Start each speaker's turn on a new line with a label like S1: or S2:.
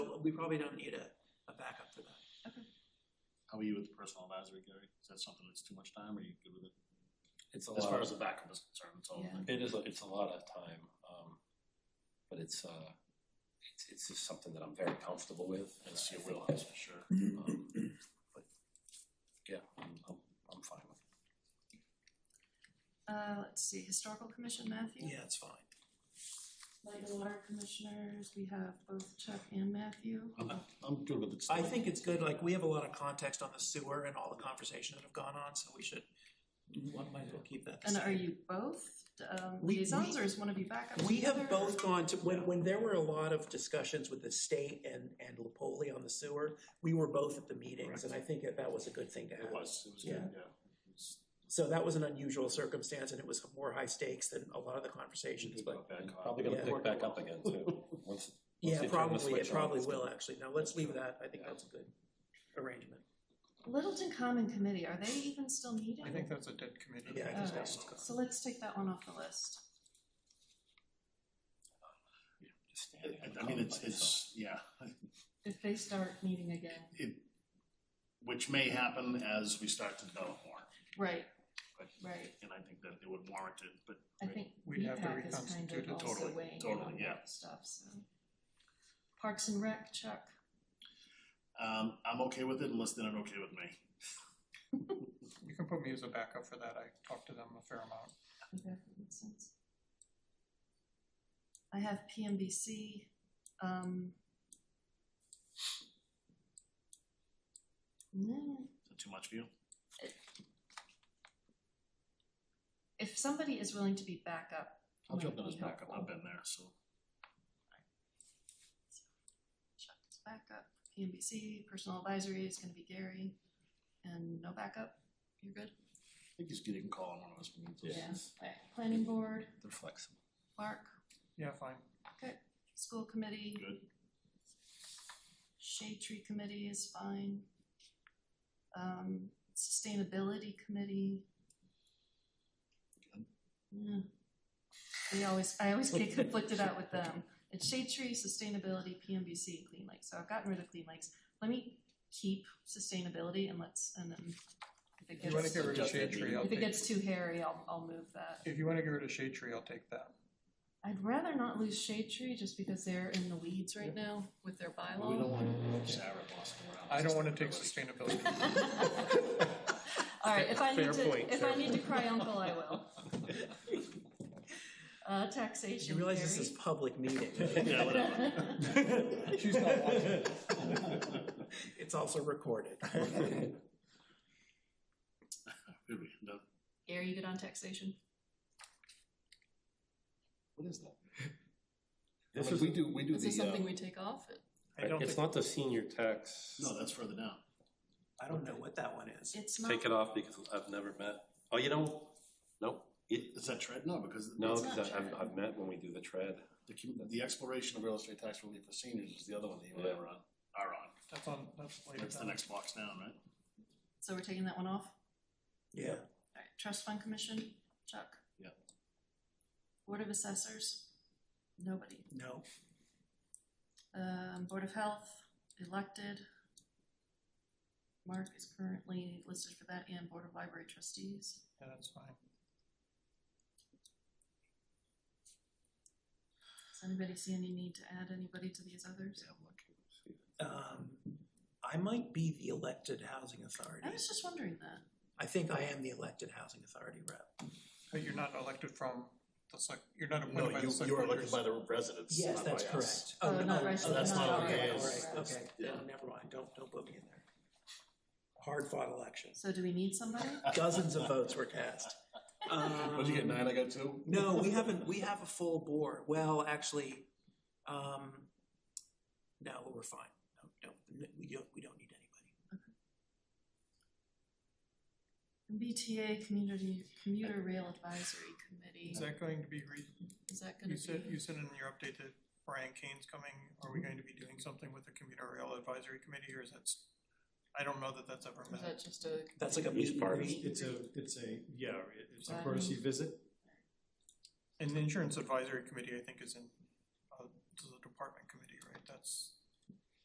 S1: we probably don't need a, a backup for that.
S2: How are you with the personal advisory, Gary? Is that something that's too much time, or are you good with it?
S3: It's a
S2: As far
S3: lot,
S2: as the backup is concerned, it's all.
S4: Yeah.
S3: it is, a- it's a lot of time, um, but it's, uh, it's, it's just something that I'm very comfortable with. and
S2: It's
S3: I
S2: your
S3: think-
S2: wheelhouse for sure.
S3: um, But, yeah, I'm, I'm, I'm fine with it.
S4: Uh, let's see, historical commission, Matthew?
S1: Yeah, it's fine.
S4: Light and water commissioners, we have both Chuck and Matthew.
S2: I'm good with it.
S1: I think it's good, like, we have a lot of context on the sewer and all the conversations that have gone on, so we should, one might as well keep that the
S4: And
S1: same.
S4: are you both um,
S1: We-
S4: liaisons,
S1: we-
S4: or is one of you backup?
S1: We have
S4: together?
S1: both gone to, when, when there were a lot of discussions with the state and, and Lepoli on the sewer, we were both at the meetings, and I think that that was a good thing to have.
S2: It was, it was good, yeah. It was-
S1: So that was an unusual circumstance, and it was more high stakes than a lot of the conversations, but,
S2: Not bad,
S3: I'm
S2: Kyle.
S3: Probably gonna
S1: Yeah.
S3: pick back up again too, once, Once
S1: yeah,
S3: they turn the
S1: probably, it
S3: switch on,
S1: probably
S3: it's
S1: will,
S3: gonna-
S1: actually. Now, let's leave that, I think
S3: Yeah.
S1: that's a good arrangement.
S4: Littleton Common Committee, are they even still needed?
S5: I think that's a dead committee.
S1: Yeah, I
S4: All
S1: think
S4: right,
S1: that's good.
S4: so let's take that one off the list.
S3: just standing. on
S2: I mean,
S3: the
S2: it's,
S3: top of myself.
S2: it's, yeah,
S4: If they start meeting again.
S2: it, which may happen as we start to develop more,
S4: Right,
S2: But-
S4: right,
S2: and I think that it would warrant it, but
S4: I think
S5: We'd have to
S4: VPAC is kind
S5: reconstitute
S4: of
S5: it.
S4: also
S2: Totally,
S4: weighing in
S2: totally,
S4: on
S2: yeah.
S4: that stuff, so. Parks and Rec, Chuck,
S2: um, I'm okay with it unless they're not okay with me.
S5: You can put me as a backup for that, I talked to them a fair amount.
S4: if that makes sense. I have PMBC, um. mm,
S2: Is that too much for you?
S4: If somebody is willing to be backup,
S2: I'll
S4: might
S2: jump in
S4: be
S2: as backup,
S4: helpful.
S2: I've been there, so.
S4: Chuck is backup, PMBC, personal advisory is gonna be Gary, and no backup, you're good?
S2: I think he's getting a call on one of us. when he does.
S4: Okay, planning board,
S3: They're flexible.
S4: Mark,
S5: Yeah, fine.
S4: okay, school committee.
S2: Good.
S4: Shade tree committee is fine. Um, sustainability committee.
S2: Good.
S4: Yeah. We always, I always get conflicted out with them. It's shade tree, sustainability, PMBC, and clean lakes. So I've gotten rid of clean lakes. Let me keep sustainability and let's, and then if it
S5: If you wanna
S4: gets,
S5: get rid of
S2: Adjust
S5: shade
S2: that
S5: tree,
S2: meeting.
S5: I'll
S4: if it
S5: take,
S4: gets too hairy, I'll, I'll move that.
S5: if you wanna get rid of shade tree, I'll take that.
S4: I'd rather not lose shade tree just because they're in the weeds right now with their bylaw.
S2: We don't want Sarah bossing around.
S5: I don't wanna take sustainability.
S4: All right, if I need
S5: Fair point,
S4: to, if I
S5: fair
S4: need to cry uncle, I will. Uh, taxation.
S1: You realize this
S4: Gary?
S1: is public meeting,
S2: Yeah, whatever.
S5: She's not watching.
S1: it's also recorded.
S2: Here we end up.
S4: Gary, you good on taxation?
S3: What is that?
S6: This
S3: Like,
S6: is, we do, we do
S4: Is this
S6: the, uh,
S4: something we take off?
S5: I don't
S6: it's
S5: think,
S6: not the senior tax,
S2: No, that's further down.
S1: I don't know what that one is.
S4: It's not.
S6: take it off because I've never met, oh, you know, no, it,
S2: Is that tread? No, because
S6: no,
S4: It's not
S6: because I've,
S4: tread.
S6: I've met when we do the tread.
S2: the, commu- the exploration of real estate tax relief for seniors is the other one that you and I were on, are on.
S5: that's on, that's later
S2: That's the
S5: down.
S2: next box down, right?
S4: So we're taking that one off?
S1: Yeah,
S4: All right, trust fund commission, Chuck?
S2: Yeah.
S4: Board of assessors? Nobody.
S1: no,
S4: Um, board of health, elected. Mark is currently listed for that and board of library trustees.
S5: Yeah, that's fine.
S4: Does anybody see any need to add anybody to these others?
S1: um, I might be the elected housing authority.
S4: I was just wondering that.
S1: I think I am the elected housing authority rep.
S5: But you're not elected from, the select, you're not
S2: No,
S5: appointed by the
S2: you,
S5: select.
S2: you are
S5: board,
S2: elected by the residents.
S1: Yes,
S2: not
S1: that's
S2: by us.
S1: correct.
S4: Oh, not right,
S1: Oh, that's
S2: not
S1: not,
S2: right,
S1: okay, all
S2: yes,
S1: right, okay,
S2: yeah.
S1: No, never mind, don't, don't put me in there. Hard fought elections,
S4: So do we need somebody?
S1: dozens of votes were cast.
S6: What'd you get,
S1: Um,
S6: nine, I got two?
S1: No, we haven't, we have a full board, well, actually, um, no, we're fine, no, no, we don't, we don't need anybody.
S4: BTA Community Commuter Rail Advisory Committee,
S5: Is that going to be, re-
S4: is that
S5: you
S4: gonna
S5: said, you
S4: be?
S5: said in your update that Brian Kane's coming, are we
S2: Mm-hmm.
S5: going to be doing something with the commuter rail advisory committee, or is that? s- I don't know that that's ever
S4: Is
S5: met.
S4: that just a?
S1: That's like a meet and greet.
S7: It's a, it's a, yeah, it- it's a
S4: Planning.
S7: courtesy visit.
S5: And the insurance advisory committee, I think, is in, uh, to the department committee, right, that's